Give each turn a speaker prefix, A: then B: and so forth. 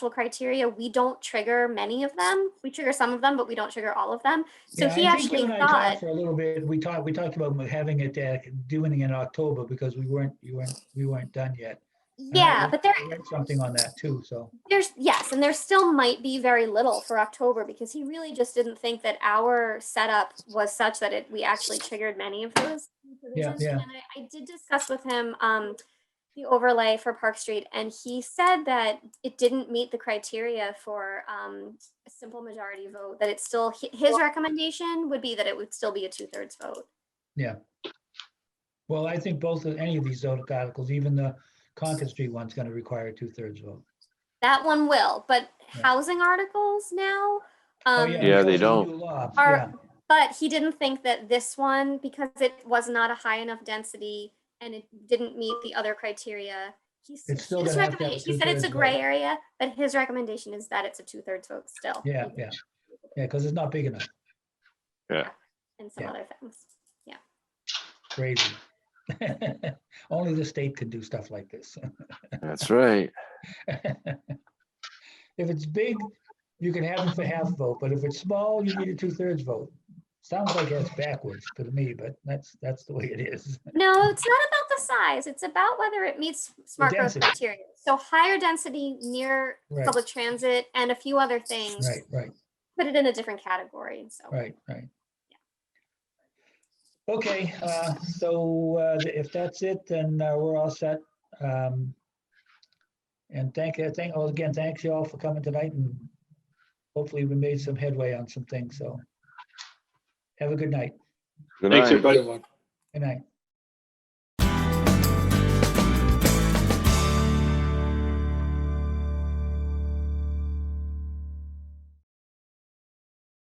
A: criteria, we don't trigger many of them. We trigger some of them, but we don't trigger all of them. So
B: Yeah,
A: he
B: I think you
A: actually
B: and I talked
A: thought,
B: For a little bit, we talked, we talked about having it, uh, doing it in October because we weren't, you weren't, we weren't done yet. And I
A: yeah,
B: read-
A: but there,
B: I read Something on that too, so.
A: there's, yes, and there still might be very little for October because he really just didn't think that our setup was such that it, we actually triggered many of those. provisions.
B: yeah.
A: And I, I did discuss with him, um, the overlay for Park Street and he said that it didn't meet the criteria for, um, a simple majority vote, that it's still, hi- his recommendation would be that it would still be a two-thirds vote.
B: Well, I think both of, any of these articles, even the Concord Street one's gonna require a two-thirds vote.
A: That one will, but
B: Yeah.
A: housing articles now,
B: Oh,
A: um,
C: Yeah, they
B: because of the
C: don't.
B: new law,
A: Are-
B: yeah.
A: but he didn't think that this one, because it was not a high enough density and it didn't meet the other criteria. He's,
B: It's still
A: his
B: gonna have to have a
A: recommendation, he said it's a
B: two-thirds
A: gray
B: vote.
A: area, but his recommendation is that it's a two-thirds vote still.
B: Yeah, yeah, yeah, because it's not big enough,
A: And some
B: yeah.
A: other things.
B: crazy. Only the state can do stuff like this.
C: That's right.
B: If it's big, you can have them for half vote, but if it's small, you need a two-thirds vote. Sounds like that's backwards to me, but that's, that's the way it is.
A: No, it's not about the size, it's about whether it meets smart growth
B: density.
A: criteria. So higher density near
B: Right.
A: public transit and a few other things,
B: Right, right,
A: put it in a different category, so.
B: right, right. Okay, uh, so uh, th- if that's it, then uh, we're all set. Um, And thank, uh, thank, oh, again, thanks you all for coming tonight and hopefully we made some headway on some things, so. Have a good night.
C: Good
D: Thanks,
C: night.
D: everybody.
B: Good night.